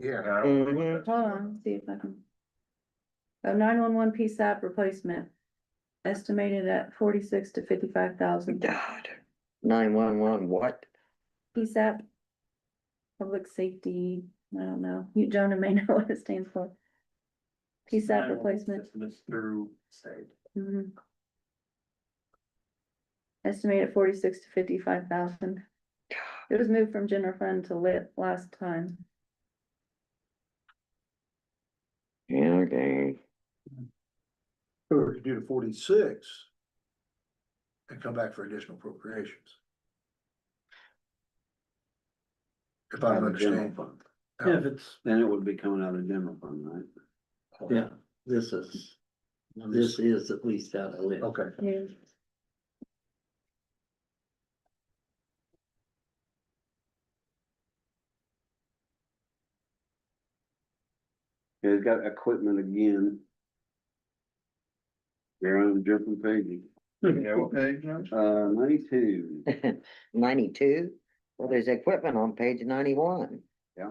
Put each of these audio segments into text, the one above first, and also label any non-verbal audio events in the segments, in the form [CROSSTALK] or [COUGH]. Yeah. I don't- Mhm. Hold on, see if I can. A nine one one PSAP replacement. Estimated at forty six to fifty five thousand God. Nine one one, what? PSAP. Public safety, I don't know, you, Jonah may [LAUGHS] know what it stands for. PSAP replacement. It's Through state. Mhm. Estimated forty six to fifty five thousand. It was moved from general fund to lit last time. Yeah, okay. Or to do the forty-six. And come back for additional appropriations. If I'm understanding. Yeah, if it's, Then it would be coming out of general fund, right? Oh, Yeah, this is, this is at least out of lit. Okay, Yeah. It's got equipment again. They're on different pages, yeah, what page, Josh? uh, ninety-two, [LAUGHS] Ninety-two? Well, there's equipment on page ninety-one. Yeah,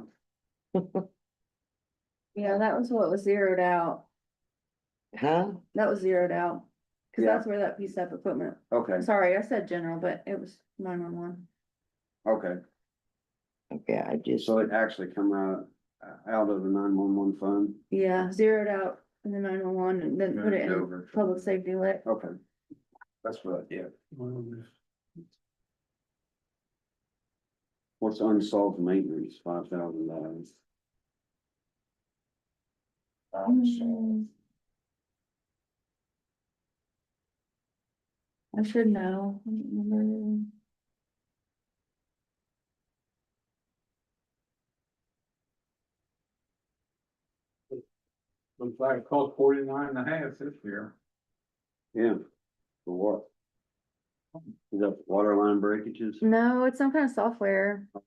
that was what was zeroed out. Huh? That was zeroed out, cause Yeah. that's where that piece of equipment, okay, sorry, I said general, but it was nine one one. okay, Okay, I just, so it actually come out, uh, out of the nine-one-one fund, Yeah, zeroed out in the nine one one and then put it Moved in over. public safety lit. okay. That's what, yeah, what's unsolved maintenance, five thousand dollars, Mm. I should know. I don't remember. Looks like it cost forty-nine and a half this year. yeah, for what? Is that water line breakages? No, it's some kind of software. I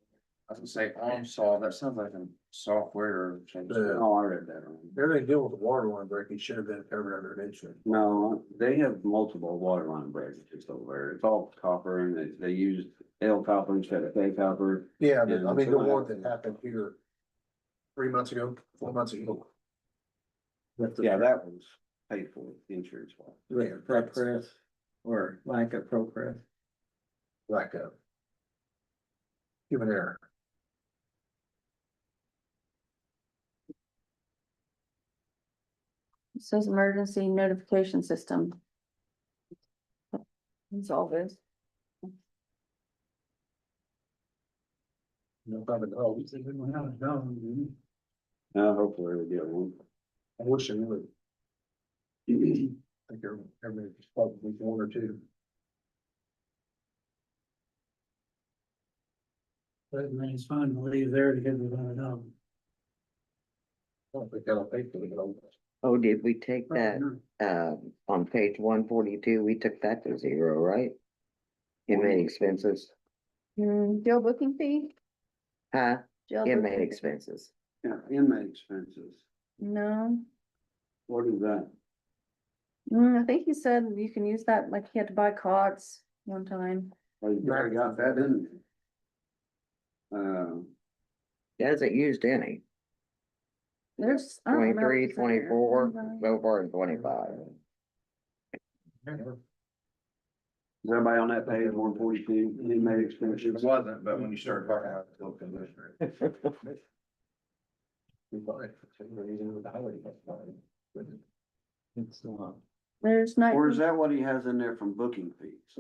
was gonna say, I'm solved, that sounds like a software change. Yeah. Oh, I read that wrong. everything dealing with the water line break, it should have been covered under insurance. No, they have multiple water line breakages over there. It's all copper and they, they use L copper instead of K copper. Yeah, but I Yeah, mean, the so I- one that happened here. Three months ago, four months ago. That's the- Yeah, that was paid for insurance. wise. With progress or lack of progress. Lack of. Human error. It says emergency notification system. It's all this. No problem at all. Uh, hopefully we get one. I wish I would. I think there, everybody's probably one or two. But money's fine to leave there to get it on home. I don't think that'll pay for the bill. oh, did we take that, uh, on page one forty-two, we took that to zero, right? Inmate expenses, Hmm, jail booking fee? huh? Jail Inmate booking- expenses. Yeah, inmate expenses. No. What is that? Mm, I think he said you can use that, like he had to buy cots one time. Oh, you already got that in there. Uh, Hasn't used any. There's. I don't remember Twenty-three, if it's in there. twenty-four, Right. so far in twenty-five. is everybody on that page, one forty-two, inmate It expenses? wasn't, but when you start talking about it, it's commissioner. [LAUGHS] We buy it for some reason with the highway department. It's not. There's not. Or is that what he has in there from booking fees?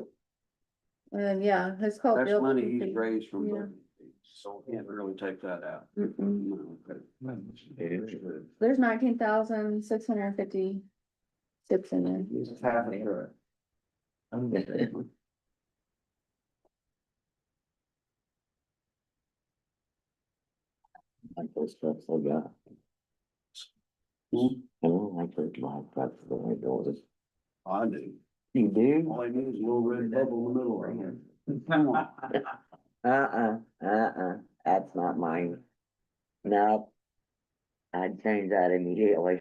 Uh, yeah, it's called. That's jail money booking he's fee. raised from Yeah. booking fees, so we can't really take that out. Mm-mm. No, okay. There's nineteen thousand six hundred and fifty tips in there. It's half a truck. Like those trucks I got. Hmm. Mm-hmm. I don't like those live trucks, the way doors. I do. You do? All I need is a little red bubble in the middle right here. Uh-uh, uh-uh, that's not mine. No. I'd change that immediately.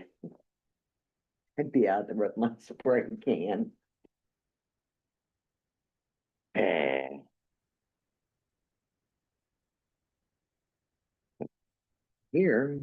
I'd be out there with my [LAUGHS] spray can. Eh. here.